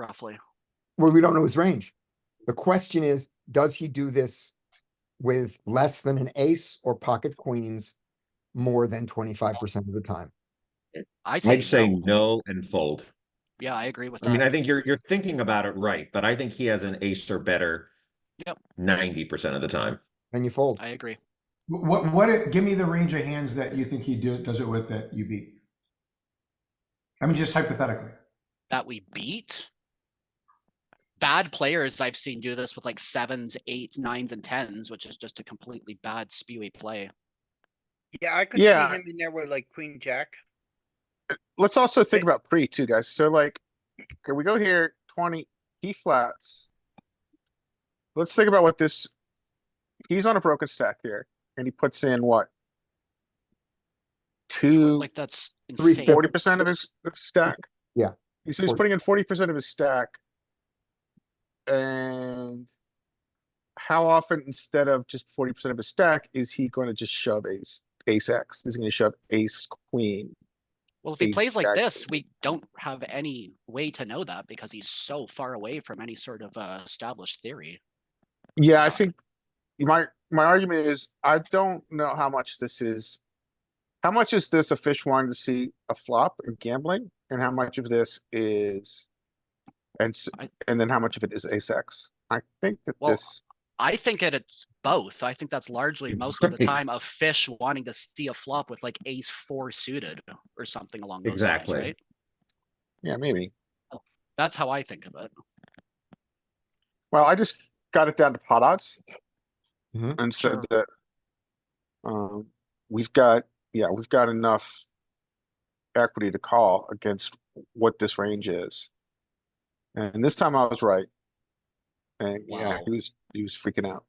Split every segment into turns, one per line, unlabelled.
roughly.
Well, we don't know his range. The question is, does he do this with less than an ace or pocket queens more than twenty-five percent of the time?
I say,
I'd say
no.
no and fold.
yeah, I agree with that.
I mean, I think you're, you're thinking about it right, but I think he has an ace or better.
Yep.
Ninety percent of the time.
Then you fold.
I agree.
What, what, give me the range of hands that you think he do, does it with that you beat. I mean, just hypothetically.
That we beat bad players I've seen do this with like sevens, eights, nines, and tens, which is just a completely bad spewy play.
Yeah, I could see
Yeah.
him in there with like queen jack.
Let's also think
It-
about pre too, guys. So like, okay, we go here, twenty, he flats. Let's think about what this, he's on a broken stack here, and he puts in what? Two,
Like that's
Three
insane.
forty percent of his of stack?
Yeah.
So he's
40.
putting in forty percent of his stack. And how often, instead of just forty percent of his stack, is he gonna just shove ace, ace X? Is he gonna shove ace queen?
Well, if he
Ace
plays like
jack.
this, we don't have any way to know that because he's so far away from any sort of uh, established theory.
Yeah,
Got
I
it.
think my my argument is I don't know how much this is. How much is this a fish wanting to see a flop and gambling, and how much of this is, and s-
I-
and then how much of it is ace X? I think that
Well,
this.
I think that it's both. I think that's largely most of the
Right.
time a fish wanting to see a flop with like ace four suited or something along those
Exactly.
lines, right?
Yeah, maybe.
That's how I think of it.
Well, I just got it down to pot odds.
Mhm.
And
Sure.
said that. Um, we've got, yeah, we've got enough. Equity to call against what this range is. And this time I was right. And yeah,
Wow.
he was, he was freaking out.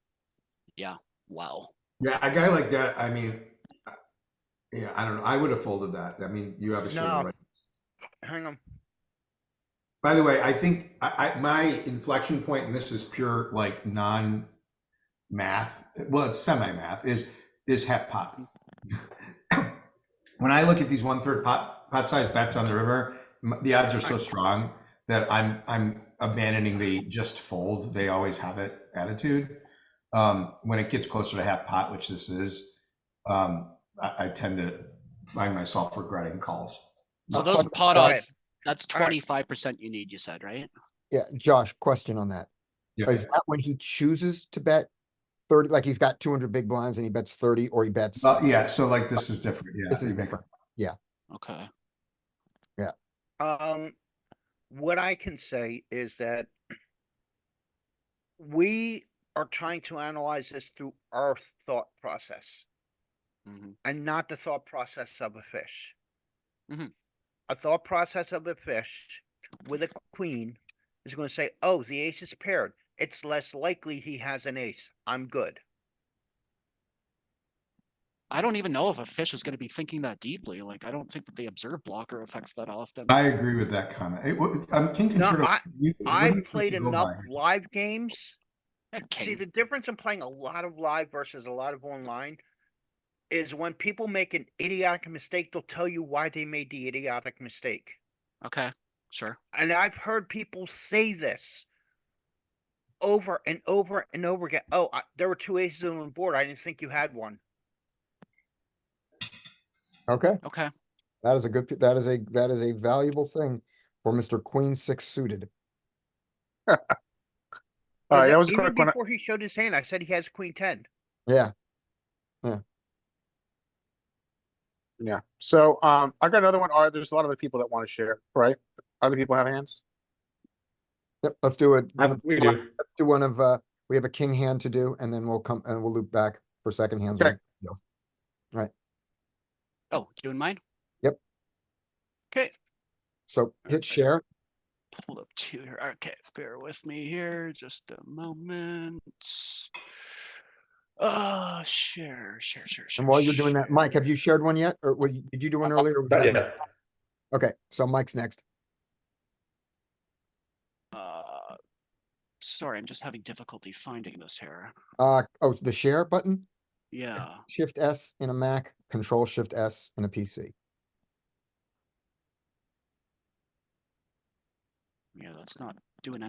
Wow.
Yeah, a guy like that, I mean, uh, yeah, I don't know. I would have folded that. I mean, you obviously were
No.
right.
Hang on.
By the way, I think I, I my inflection point, and this is pure like non math, well, it's semi math, is is half pot. when I look at these one third pot pot size bets on the river, m- the odds are so strong that I'm I'm abandoning the just fold. They always have it attitude. Um, when it gets closer to half pot, which this is, um, I, I tend to find myself regretting calls.
Uh,
So those pot
All right.
odds, that's
All right.
twenty-five percent you need, you said, right?
Yeah, Josh, question on that.
Yeah.
Is that when he chooses to bet thirty, like he's got two hundred big blinds and he bets thirty or he bets?
Uh, yeah, so like this is different. Yeah,
This is
you make-
different.
Okay.
Um, what I can say is that we are trying to analyze this through our thought process
Mhm.
and not the thought process of a fish.
Mhm.
A thought process of a fish with a queen is going to say, "Oh, the ace is paired. It's less likely he has an ace. I'm good."
I don't even know if a fish is gonna be thinking that deeply. Like, I don't think that the observe blocker affects that often.
I agree with that comment. It, wa- um, King
No,
Concerto.
I-
you- what do you
I've
think
played
you go
enough
by?
live games See,
Okay,
the difference in playing a lot of live versus a lot of online is when people make an idiotic mistake, they'll tell you why they made the idiotic mistake.
okay, sure.
And I've heard people say this over and over and over again. Oh, I, there were two aces on the board. I didn't think you had one.
Okay,
Okay,
that is a good, that is a, that is a valuable thing for Mr. Queen Six suited.
Is
Alright,
it-
that was a
even
quick one.
Before he showed his hand, I said he has queen ten.
Yeah,
Yeah. So, um, I got another one. Are, there's a lot of other people that want to share, right? Other people have hands?
Yep, let's do it.
we
do. Let's do one of, uh, we have a king hand to do and then we'll come and we'll loop back for second hand.
Okay.
oh, you doing mine?
Yep.
Okay,
So hit share.
pulled up two here. Okay, bear with me here, just a moment. Uh, share, share, share, share.
And while you're doing that, Mike, have you shared one yet? Or were you- did you do one earlier? or was that-
Yeah.
Okay, so Mike's next.
share. Uh, sorry, I'm just having difficulty finding this here.
Uh, oh, the share button?
Yeah.
Shift S in a Mac, Control Shift S in a PC.
Yeah, that's not doing